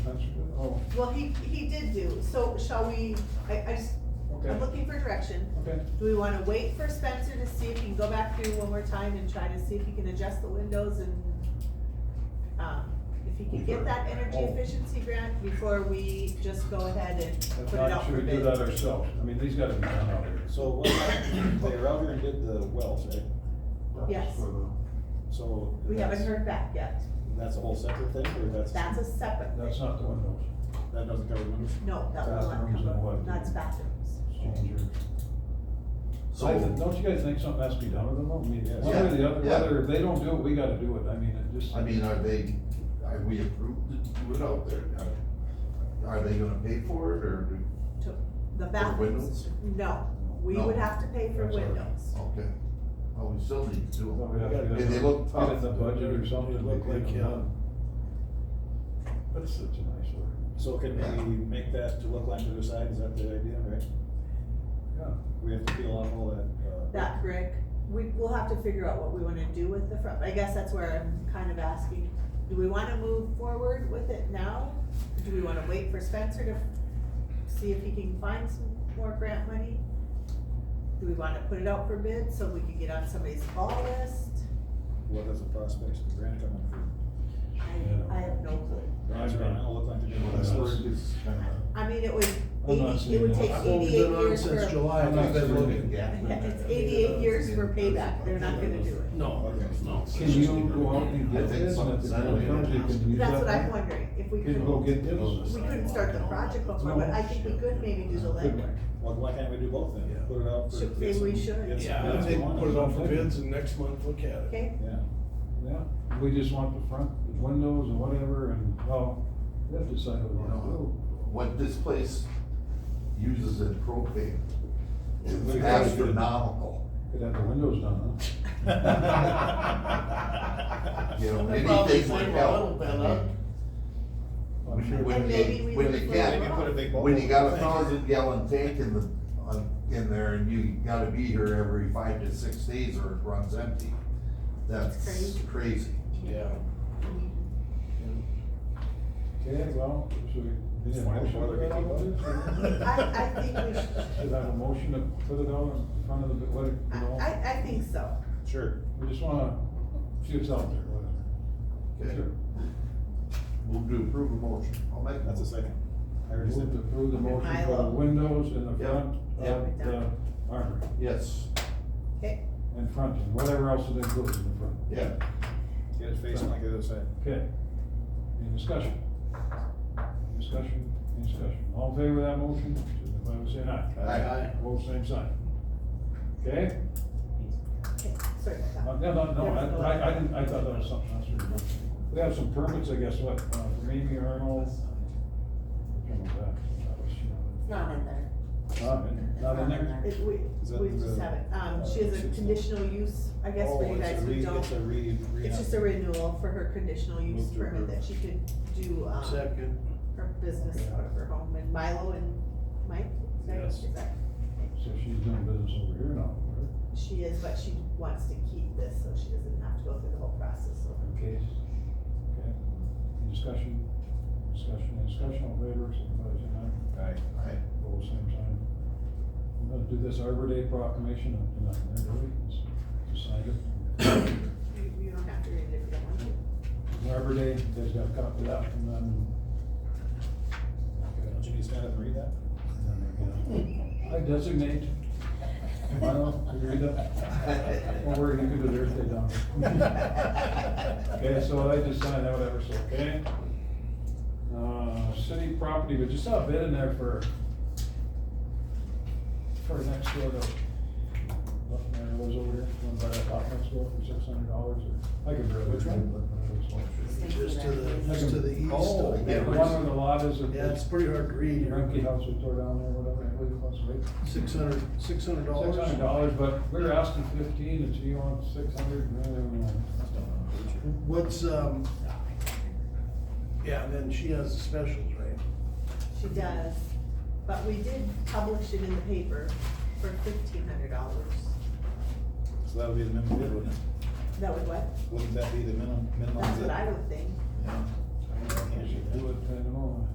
Oh, Well, he, he did do, so shall we, I, I just, Okay, I'm looking for direction. okay. Do we wanna wait for Spencer to see if he can go back through one more time and try to see if he can adjust the windows and, um, if he can get that energy Oh. efficiency grant before we just go ahead and If put it not, out for should we do bid? that ourselves? I mean, these gotta be done out here. So what, they were out here and did the wells, right? Yes. So. We haven't that's- heard back yet. That's a whole separate thing, or that's, That's that a separate That's thing. not the windows. doesn't cover windows? No, that will not Bathrooms and cover, what? that's bathrooms. So, don't you guys think something has to be done with them? though? I mean, Yes. one way or the other, Yeah. whether they don't do it, we gotta do it. I mean, it just. I mean, are they, are we approved to do it out there? Are- Are they gonna pay for it, or, do- To- The bathrooms, windows? no, we would No. have to pay for That's all right. windows. okay, oh, we still need to do Well, we it. have to Did they look Get in the tough? budget or something. They look like, yeah. uh, That's such a nice word. So can we make that to look like the other side, is that the idea, right? Yeah. We have to peel off all that, uh. That brick, we, we'll have to figure out what we wanna do with the front, I guess that's where I'm kind of asking, do we wanna move forward with it now? Do we wanna wait for Spencer to see if he can find some more grant money? Do we wanna put it out for bid so we can get on somebody's call list? What is the prospects of the grant coming through? I, I have no clue. That's right, it'll look like they're doing This word this. is kinda- I mean, it would, I'm not eighty- it would seeing it. take I've only eighty-eight been on years for. since July, I'm and I've not been sure we looking. can- Yeah, it's eighty-eight years for payback, they're not gonna do it. No, no. Can you go out and I get think this? and if something's it's not done. done, they can use That's that what I'm one? wondering, if we Can you go could, get this? we couldn't start the project before, but I think we could maybe do the legwork. Well, why can't we do both then? Yeah. Put it out for. Should- maybe we should. Get some Yeah, I bids think going. put it on for bids and next month look at it. Okay, Yeah, Yeah, we just want the front, the windows and whatever and, well, we have to decide what You we want to know, do. What this place uses in propane is We gotta do- astronomical. Could have the windows done, huh? You know, They probably anything would save a help. little bit, huh? I'm sure- When And maybe they, we when look they for- get, maybe put a big. When you got a bubble. thousand gallon tank in the, on, in there and you gotta be here every five to six days or it runs empty, that's That's crazy. Yeah. Okay, well, should we? It's fine, whether we keep it. I, I think we should, Should I have a motion to put it out in front of the, what, you I, know, I, I think so. Sure. we just wanna see what's out there, whatever. Okay, Sure. Move to approve the motion. I'll make That's a that. second. I already Move said to that. approve the motion for the Milo. windows in the Yep. front of Yep. the armory, Yes, Okay, and front, and whatever else it includes in the front. yeah. Get it facing like the other side. Okay. Any discussion? Any Discussion, any discussion. All in favor of that motion, signify by saying aye. Aye. Aye. Both same sign. Okay? okay, sorry Uh, about that. No, no, no, I- I, I didn't, I thought that was something else. we were doing. We have some permits, I guess, what, uh, for Amy Arnold. Something like that. That was, you know, It's not in there. Not in, not in there? It, we, Is that we the- uh, just have it, um, she has a conditional use, I guess for Oh, you it's a guys who re- don't. It's a re, re. It's just a renewal for her conditional use Move to permit that she could do, um, Second. her business out of her home, and Milo and Mike, is that- Yes. is that- So she's doing business over here now, right? She is, but she wants to keep this, so she doesn't have to go through the whole process, so. Okay. Okay. Any discussion? Discussion, any discussion, all in favor, signify by saying aye. Right. Aye. Both same sign. We're gonna do this Arbor Day proclamation, up tonight, there, do we? Just- just sign it. You, you don't have to read it if you don't want to. Arbor Day, you guys got a copy of that, and then. Don't you need to stand up and read that? Hmm. I designate. Milo, you read that? Don't worry, you can do the Earth Day down. Okay, so I just signed that, whatever, so, okay? Uh, city property, but just saw a bid in there for, for next door to, nothing there was over here, one by that lot next door for six hundred dollars, or, I could barely. Which one? Just to the, just to the east. Oh, of- yeah, the one where the lot is. Yeah, it's pretty hard to read. Rumpke House we tore down there, whatever, I believe it was, right? Six hundred, six hundred dollars. Six hundred dollars, but we were asking fifteen, and she wants six hundred, and then, What's, um, yeah, and then she has the specials, right? She does, but we did publish it in the paper for fifteen hundred dollars. So that would be the minimum bid, wouldn't it? That would what? Wouldn't that be the minimum, minimum? That's bid? what I would think. Yeah. I mean, I can't do that. do it, I don't know.